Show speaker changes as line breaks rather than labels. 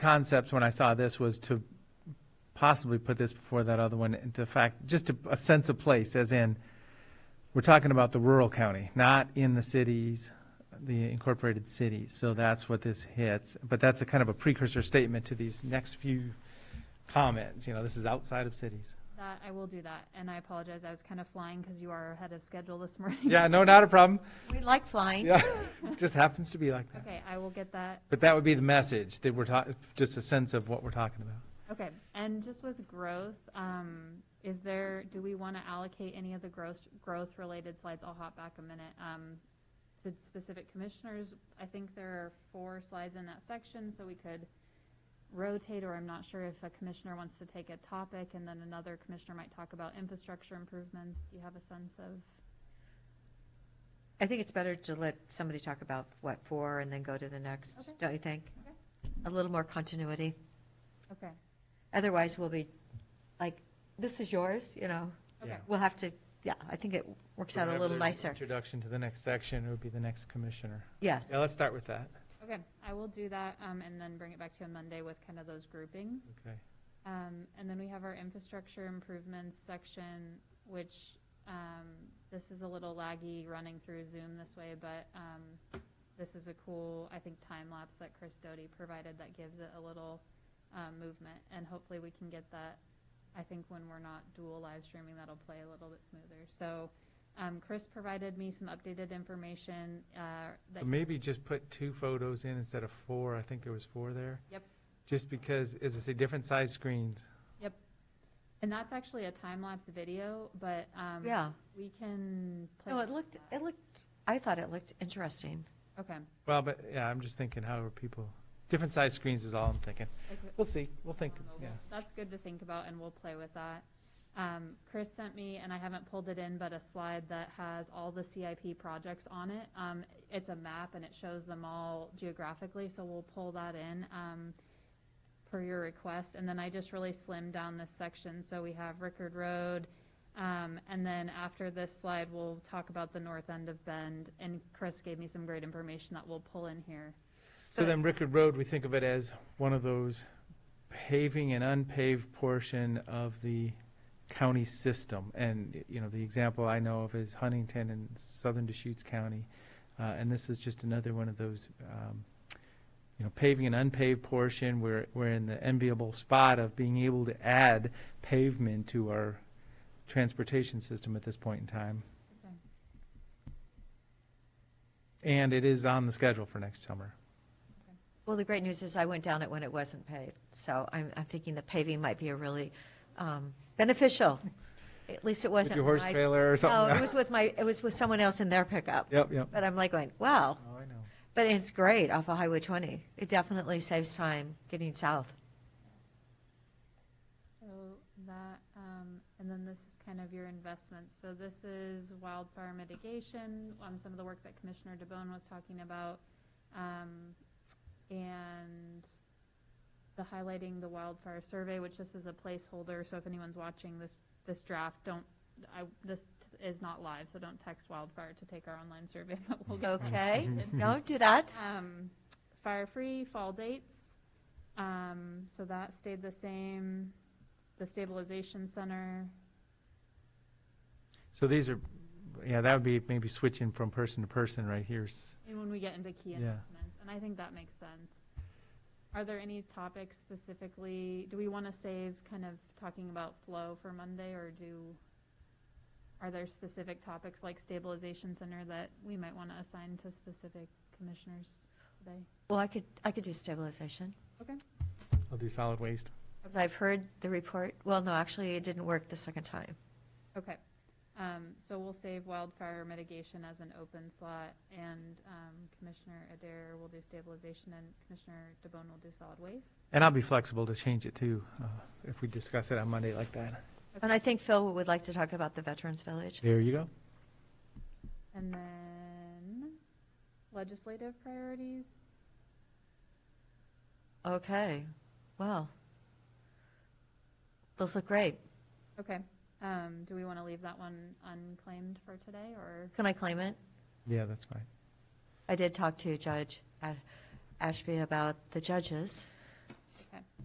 concepts when I saw this was to possibly put this before that other one, and to fact, just a, a sense of place, as in, we're talking about the rural county, not in the cities, the incorporated cities, so that's what this hits. But that's a kind of a precursor statement to these next few comments, you know, this is outside of cities.
That, I will do that, and I apologize, I was kind of flying because you are ahead of schedule this morning.
Yeah, no, not a problem,
We like flying.
yeah, just happens to be like that.
Okay, I will get that,
But that would be the message, that we're talking, just a sense of what we're talking about.
okay, and just with growth, um, is there, do we want to allocate any of the growth, growth-related slides, I'll hop back a minute, um, to specific commissioners? I think there are four slides in that section, so we could rotate, or I'm not sure if a commissioner wants to take a topic, and then another commissioner might talk about infrastructure improvements, do you have a sense of?
I think it's better to let somebody talk about what for and then go to the next,
Okay.
don't you think?
Okay.
A little more continuity.
Okay,
Otherwise, we'll be like, this is yours, you know?
okay,
Yeah.
We'll have to, yeah, I think it works out a
Whenever
little
there's an
nicer.
Introduction to the next section, it would be the next commissioner.
Yes.
Yeah, let's start with that.
okay, I will do that, um, and then bring it back to you on Monday with kind of those groupings.
Okay.
Um, and then we have our infrastructure improvements section, which, um, this is a little laggy running through Zoom this way, but, um, this is a cool, I think, time lapse that Chris Doty provided that gives it a little, um, movement. And hopefully we can get that, I think when we're not dual live streaming, that'll play a little bit smoother. So, um, Chris provided me some updated information, uh. that
So maybe just put two photos in instead of four. I think there was four there.
Yep.
Just because, as I say, different size screens.
And that's actually a time lapse video, but um,
Yeah.
we can play.
No, it
with
looked,
that.
it looked, I thought it looked interesting.
Okay.
Well, but, yeah, I'm just thinking, how are people, different size screens is all I'm thinking.
Okay.
We'll see, we'll think, yeah.
That's good to think about, and we'll play with that. Um, Chris sent me, and I haven't pulled it in, but a slide that has all the CIP projects on it. Um, It's a map, and it shows them all geographically, so we'll pull that in um, per your request. And then I just really slimmed down this section, so we have Rickard Road. um, And then after this slide, we'll talk about the north end of Bend, and Chris gave me some great information that we'll pull in here.
So then Rickard Road, we think of it as one of those paving and unpaved portion of the county system. And, you know, the example I know of is Huntington in southern Deschutes County. Uh, and this is just another one of those, um, you know, paving and unpaved portion. We're, we're in the enviable spot of being able to add pavement to our transportation system at this point in time.
Okay.
And it is on the schedule for next summer.
Well, the great news is I went down it when it wasn't paved, so I'm, I'm thinking the paving might be a really um, beneficial. At least it
With
wasn't.
your horse
my-
trailer or
No,
something.
it was with my, it was with someone else in their pickup.
Yep, yep.
But I'm like going, wow,
Oh, I know.
but it's great off of Highway 20. It definitely saves time getting south.
So that, um, and then this is kind of your investments. So this is wildfire mitigation, um, some of the work that Commissioner DeBonne was talking about. Um, and the highlighting the wildfire survey, which this is a placeholder, so if anyone's watching this, this draft, don't, I, this is not live, so don't text wildfire to take our online survey, but we'll get.
Okay?
Mm-hmm.
Don't do that.
Um, fire free fall dates. Um, so that stayed the same. The stabilization center.
So these are, yeah, that would be maybe switching from person to person right here. S-
And when we get into key
Yeah.
investments, and I think that makes sense. Are there any topics specifically? Do we want to save kind of talking about flow for Monday, or do? Are there specific topics like stabilization center that we might want to assign to specific commissioners today?
Well, I could, I could do stabilization.
Okay.
I'll do solid waste.
Because I've heard the report, well, no, actually, it didn't work the second time.
Okay, um, so we'll save wildfire mitigation as an open slot, and, um, Commissioner Adair will do stabilization, and Commissioner DeBonne will do solid waste.
And I'll be flexible to change it too, uh, if we discuss it on Monday like that.
And I think Phil would like to talk about the Veterans Village.
There you go.
And then legislative priorities,
Okay, well, those look great.
okay, um, do we wanna leave that one unclaimed for today, or?
Can I claim it?
Yeah, that's fine.
I did talk to Judge A- Ashby about the judges.